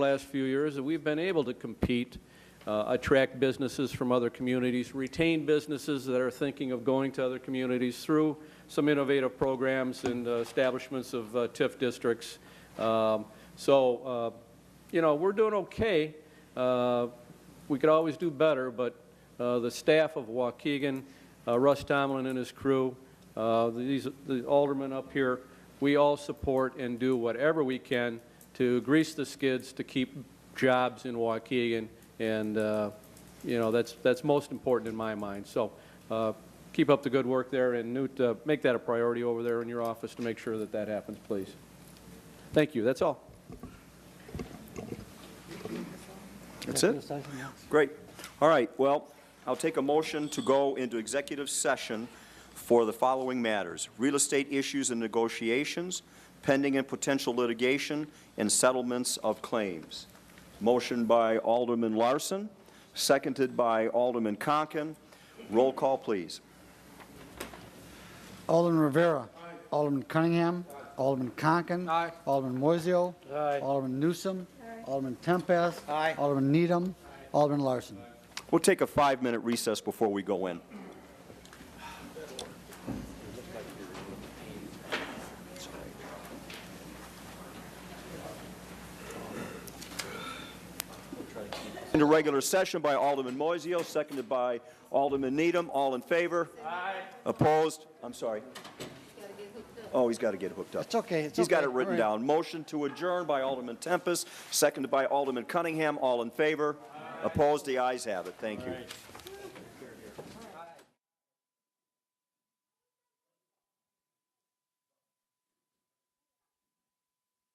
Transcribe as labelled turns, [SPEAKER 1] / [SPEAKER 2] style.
[SPEAKER 1] last few years that we've been able to compete, uh, attract businesses from other communities, retain businesses that are thinking of going to other communities through some innovative programs and uh, establishments of uh, TIF districts. Um, So, uh, you know, we're doing okay. Uh, We could always do better, but uh, the staff of Waukegan, uh, Russ Tomlin and his crew, uh, these, the aldermen up here, we all support and do whatever we can to grease the skids to keep jobs in Waukegan, and, uh, you know, that's, that's most important in my mind. So uh, keep up the good work there, and Newt, uh, make that a priority over there in your office to make sure that that happens, please. Thank you, that's all.
[SPEAKER 2] That's it? Great. All right, well, I'll take a motion to go into executive session for the following matters: real estate issues and negotiations, pending and potential litigation, and settlements of claims. Motion by Alderman Larson, seconded by Alderman Conken. Roll call, please.
[SPEAKER 3] Alderman Rivera. Alderman Cunningham. Alderman Conken.
[SPEAKER 1] Aye.
[SPEAKER 3] Alderman Moiseo. Alderman Newsom. Alderman Tempest. Alderman Needham. Alderman Larson.
[SPEAKER 2] We'll take a five-minute recess before we go in. Into regular session by Alderman Moiseo, seconded by Alderman Needham. All in favor? Aye. Opposed? I'm sorry. Oh, he's got to get hooked up.
[SPEAKER 3] It's okay, it's
[SPEAKER 2] He's got
[SPEAKER 3] okay.
[SPEAKER 2] it written
[SPEAKER 3] All right.
[SPEAKER 2] down. Motion to adjourn by Alderman Tempest, seconded by Alderman Cunningham. All in favor? Opposed? The ayes have it. Thank you.